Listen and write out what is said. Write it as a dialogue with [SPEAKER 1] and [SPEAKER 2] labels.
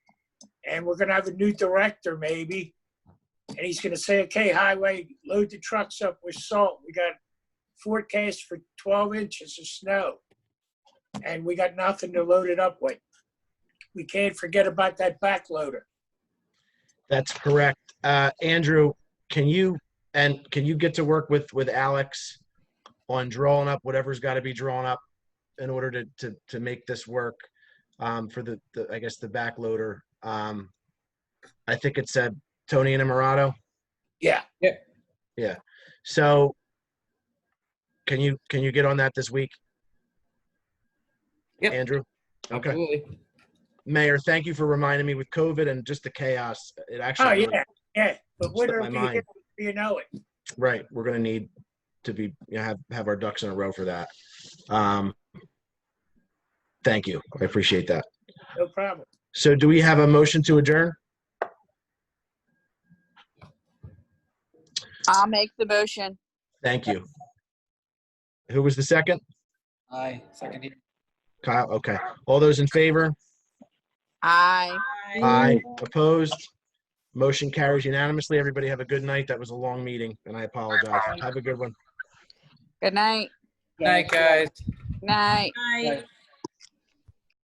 [SPEAKER 1] and we're gonna have a new director maybe. And he's gonna say, okay, highway, load the trucks up with salt. We got forecast for twelve inches of snow. And we got nothing to load it up with. We can't forget about that backloader.
[SPEAKER 2] That's correct. Uh, Andrew, can you, and can you get to work with, with Alex on drawing up whatever's got to be drawn up in order to, to, to make this work um, for the, the, I guess, the backloader? Um, I think it said Tony and Amarato.
[SPEAKER 1] Yeah,
[SPEAKER 2] So can you, can you get on that this week?
[SPEAKER 3] Yep.
[SPEAKER 2] Andrew? Okay.
[SPEAKER 3] Absolutely.
[SPEAKER 2] Mayor, thank you for reminding me with COVID and just the chaos. It actually.
[SPEAKER 1] oh,
[SPEAKER 2] really-
[SPEAKER 1] yeah, yeah, but
[SPEAKER 2] Slipped
[SPEAKER 1] winter
[SPEAKER 2] my
[SPEAKER 1] will be
[SPEAKER 2] mind.
[SPEAKER 1] here, you know it.
[SPEAKER 2] Right, we're gonna need to be, you know, have, have our ducks in a row for that. Um Thank you, I appreciate that.
[SPEAKER 1] No problem.
[SPEAKER 2] So do we have a motion to adjourn?
[SPEAKER 4] I'll make the motion.
[SPEAKER 2] Thank you. Who was the second?
[SPEAKER 3] Aye, second here.
[SPEAKER 2] Kyle, okay. All those in favor?
[SPEAKER 4] Aye.
[SPEAKER 2] Aye. Opposed? Motion carries unanimously. Everybody have a good night. That was a long meeting, and I apologize. Have a good one.
[SPEAKER 4] Good night.
[SPEAKER 3] Night, guys.
[SPEAKER 4] Night.
[SPEAKER 5] Night.